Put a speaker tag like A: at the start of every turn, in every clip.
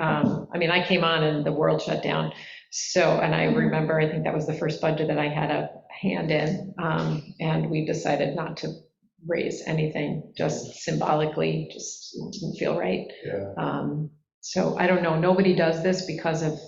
A: Um, I mean, I came on and the world shut down. So, and I remember, I think that was the first budget that I had a hand in. um, And we decided not to raise anything, just symbolically, just didn't feel right.
B: Yeah.
A: Um, So I don't know, nobody does this because of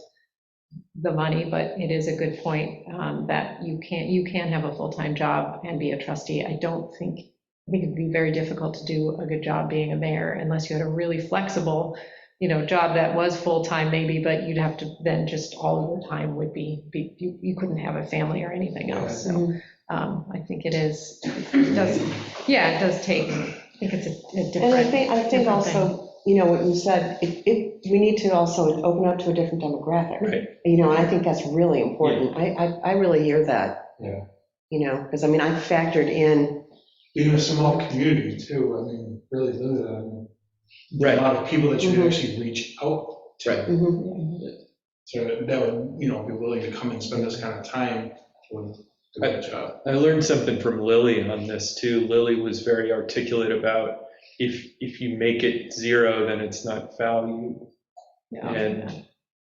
A: the money, but it is a good point um, that you can't, you can have a full-time job and be a trustee. I don't think, I think it'd be very difficult to do a good job being a mayor unless you had a really flexible, you know, job that was full-time maybe, but you'd have to, then just all of the time would be, be- you you couldn't have a family or anything else. So
C: Mm-hmm.
A: um, I think it is, it does, yeah, it does take, I think it's a- a
C: And I
A: different.
C: think, I think
A: different
C: also, you know, what you said, it, it, we need to also open up to a different demographic.
B: Right.
C: You know, and I think that's really important. I, I, I really hear that.
B: Yeah.
C: You know, because I mean, I factored in,
B: Being a small community too, I mean, really, limited, I mean, a
D: Right,
B: lot of people that you
C: Mhm.
B: can actually reach out
D: right.
A: Mm-hmm.
C: mhm,
B: So that would, you know, be willing to come and spend this kind of time with doing the job.
D: I learned something from Lily on this too. Lily was very articulate about if, if you make it zero, then it's not value.
A: Oh, Yeah.
D: And,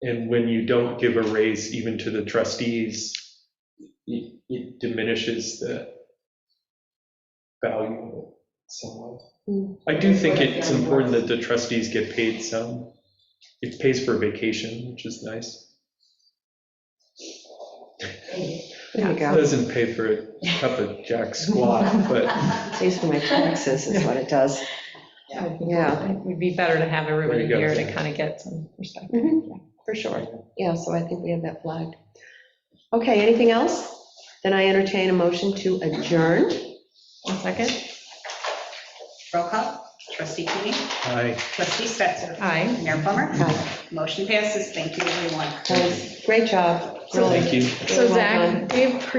D: and when you don't give a raise even to the trustees, it, it diminishes the value of it somewhat.
C: Hmm.
D: I do think it's important that the trustees get paid some. It pays for vacation, which is nice.
C: there you go,
D: Doesn't pay for a cup of jack squat, but
C: pays for my taxes is what it does.
A: I think
C: Yeah.
A: It would be better to have everybody
D: There you
A: here
D: go.
A: to kind of get some perspective.
C: Mhm, yeah, For sure, yeah, so I think we have that flagged. Okay, anything else? Then I entertain a motion to adjourn.
A: One second.
E: Roll call. Trustee Keating.
D: I.
E: Trustee Stetser.
A: Aye.
E: Mayor Plummer.
C: Aye.
E: Motion passes. Thank you, everyone.
C: Guys, Great job.
A: So-
C: really.
D: Thank you.
A: So
C: Well
A: Zach,
C: done.
A: we have